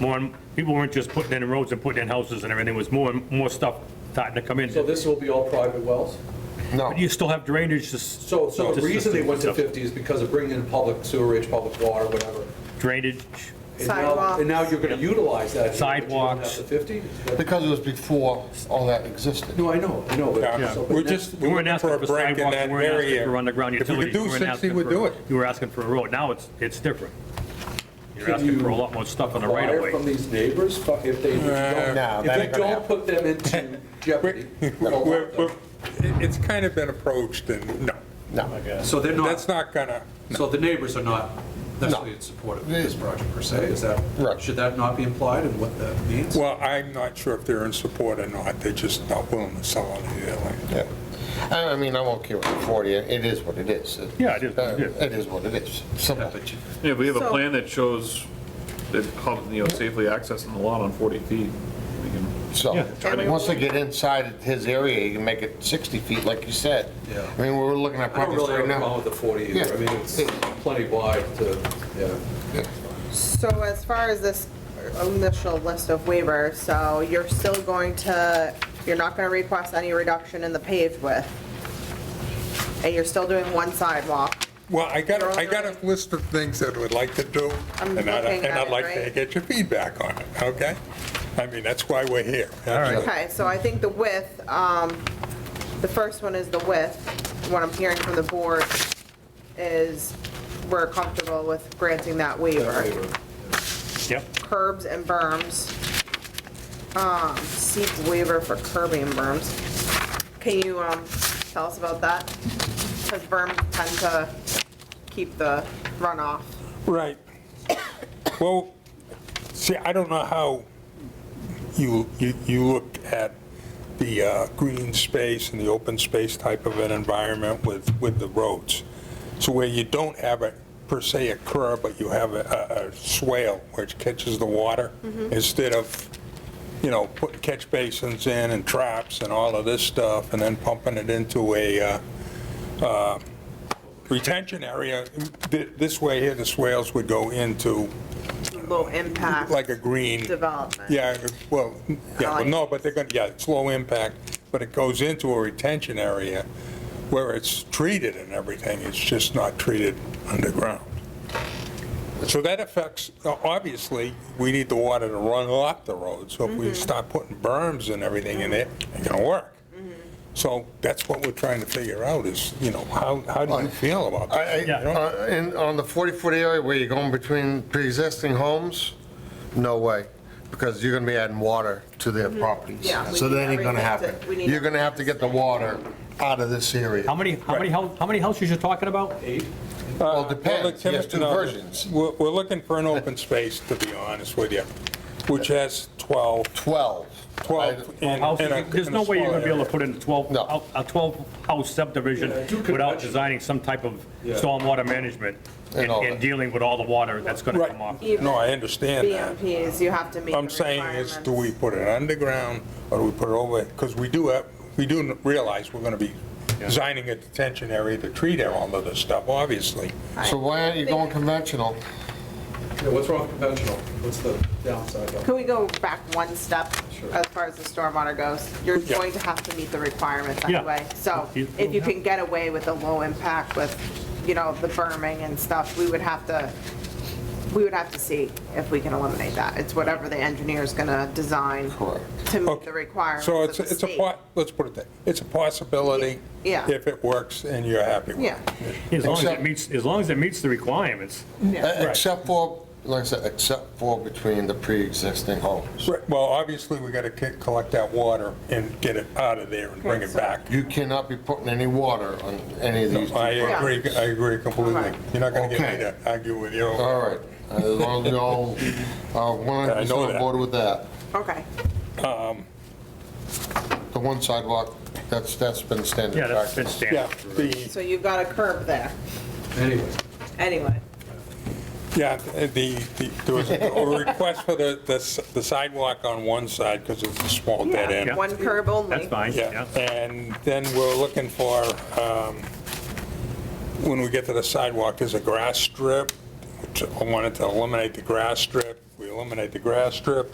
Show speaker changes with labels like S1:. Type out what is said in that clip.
S1: more, and- people weren't just putting in roads and putting in houses and everything, it was more and more stuff starting to come in.
S2: So this will be all private wells?
S3: No,
S1: But you still have drainage, just.
S2: So, so the
S1: just-
S2: reason they went to
S1: just
S2: 50 is because of bringing in public sewerage, public water, whatever.
S1: Drainage,
S2: And now, and now you're going to utilize that. here, but you don't have
S1: Sidewalks.
S2: The 50? Is that-
S3: because it was before all that existed.
S2: No, I know, I know. but-
S1: Yeah.
S2: so- but
S4: We're
S2: now-
S4: just,
S1: we weren't
S4: looking
S1: asking
S4: for a
S1: for
S4: break in
S1: sidewalks,
S4: that
S1: we weren't asking
S4: area.
S1: for underground
S4: If we could
S1: utilities.
S4: do
S1: weren't
S4: 60,
S1: asking
S4: we'd
S1: for-
S4: do it.
S1: You were asking for a road, now it's, it's different. You're
S2: Can
S1: asking for a
S2: you
S1: lot more stuff on the right of
S2: Acquire
S1: way.
S2: from these neighbors, fu- if they, if you
S3: No,
S2: don't-
S3: that
S2: if
S3: ain't
S2: you
S3: gonna
S2: don't
S3: happen.
S2: put them into jeopardy. you don't want
S4: We're,
S2: them.
S4: we're, it- it's kind of been approached and, no,
S3: No.
S2: So they're
S4: that's
S2: not,
S4: not gonna,
S2: so the neighbors are not necessarily in support of this project per se, is that?
S3: Right.
S2: Should that not be implied and what that means?
S4: well, I'm not sure if they're in support or not, they're just not willing to sell on the land.
S3: Yeah. I I mean, I'm okay with the 40, it is what it is. It-
S1: Yeah, it is what it is.
S3: It is what it is,
S2: Yeah,
S3: simple.
S2: but you-
S5: Yeah, we have a
S6: So-
S5: plan that shows that how, you know, safely accessing the lot on 40 feet. We can-
S3: So,
S1: Yeah.
S3: I mean, once they get inside his area, you can make it 60 feet, like you said.
S2: Yeah.
S3: I mean, we're looking
S2: I
S3: at
S2: don't
S3: properties
S2: really have
S3: right
S2: a problem
S3: now.
S2: with the 40
S3: Yeah.
S2: either. I mean, it's plenty wide to, yeah.
S6: So as far as this initial list of waivers, so you're still going to, you're not going to request any reduction in the paved width? And you're still doing one sidewalk?
S4: Well, I got,
S6: You're
S4: I got a
S6: already-
S4: list of things that we'd like to do,
S6: I'm
S4: and I'd,
S6: looking
S4: and
S6: at
S4: I'd
S6: it,
S4: like to
S6: right?
S4: get your feedback on it, okay? I mean, that's why we're here. All
S6: Okay, so I think the width, um, the first one is the width. What I'm hearing from the board is we're comfortable with granting that waiver.
S1: Yep,
S6: Curbs and berms, um, seek waiver for curbing and berms. Can you um, tell us about that? Because berms tend to keep the runoff.
S4: Right. Well, see, I don't know how you, you you looked at the uh, green space and the open space type of an environment with, with the roads. So where you don't have a, per se, a curb, but you have a- a a swale which catches the water instead of, you know, putting catch basins in and traps and all of this stuff and then pumping it into a, uh, retention area, th- this way here, the swales would go into
S6: Low impact.
S4: like a green.
S6: Development.
S4: Yeah, well, yeah, well, no, but they're gonna, yeah, it's low impact, but it goes into a retention area where it's treated and everything, it's just not treated underground. So that affects, obviously, we need the water to run off the road, so if we start putting berms and everything in it, it's gonna work. So that's what we're trying to figure out is, you know, how, how do you feel about
S3: I-
S4: that?
S3: I-
S1: Yeah.
S3: uh, In, on the 40-foot area where you're going between pre-existing homes, no way, because you're gonna be adding water to their properties.
S6: Mm-hmm. Yeah, we
S3: So
S6: need
S3: that ain't gonna
S6: everything
S3: happen.
S6: to- we need
S3: You're gonna have to get the water out of this area.
S1: how many, how many, hou- how many houses you're talking about?
S2: Eight?
S3: Well, it
S4: Uh, Well, the
S3: depends, there's two
S4: timber- no,
S3: versions.
S4: We're, we're looking for an open space, to be honest with you, which has 12,
S3: 12.
S4: 12. in- in
S1: Houses,
S4: a-
S1: there's
S4: in a
S1: no way you're
S4: small
S1: gonna be able
S4: area.
S1: to put in 12,
S3: No.
S1: hou- a 12-house subdivision
S2: Yeah, do
S1: without
S2: convention.
S1: designing some type of
S2: Yeah.
S1: stormwater management
S3: And
S1: and
S3: all
S1: and
S3: that.
S1: dealing with all the water that's gonna come off.
S4: Right, no, I understand that.
S6: BMPs, you have to meet the
S4: I'm saying is, do we
S6: requirements.
S4: put it underground, or do we put it over, because we do have, we do realize we're gonna be designing a detention area to treat all of this stuff, obviously.
S3: So why aren't you going conventional?
S2: Yeah, what's wrong with conventional? What's the downside of it?
S6: Can we go back one step
S2: Sure.
S6: as far as the stormwater goes? You're
S4: Yeah.
S6: going to have to meet the requirements
S1: Yeah.
S6: anyway. So
S1: You-
S6: if you can get away with a low impact with, you know, the berming and stuff, we would have to, we would have to see if we can eliminate that. It's whatever the engineer's gonna design
S3: Correct.
S6: to meet
S4: Okay.
S6: the requirements
S4: So
S6: of
S4: it's,
S6: the
S4: it's a,
S6: state.
S4: po- let's put it that, it's a possibility.
S6: Yeah.
S4: If it works and you're happy with it.
S6: Yeah.
S1: As long as it
S3: Except-
S1: meets, as long as it meets the requirements.
S3: E-, Except for, like I said, except for between the pre-existing homes.
S4: Right, Well, obviously, we got to collect that water and get it out of there and bring it back.
S3: You cannot be putting any water on any of these. two
S4: I
S3: properties.
S4: agree, I agree completely.
S6: Alright.
S4: You're not going to get me
S3: Okay.
S4: to argue with you.
S3: All right, as long as you all are
S4: I know
S3: 100% on
S4: that.
S3: board with that.
S6: Okay,
S3: The one sidewalk, that's, that's been standard
S1: Yeah, that's been
S3: practice.
S4: Yeah,
S1: standard.
S4: the,
S6: so you've got a curb there,
S2: Anyway,
S6: anyway.
S4: yeah, the, the- there was a request for the, the s- the sidewalk on one side because it's a small dead end.
S1: Yeah.
S6: One curb only.
S1: That's fine,
S4: Yeah,
S1: yeah.
S4: and then we're looking for, um, when we get to the sidewalk, there's a grass strip. which I wanted to eliminate the grass strip. We eliminate the grass strip,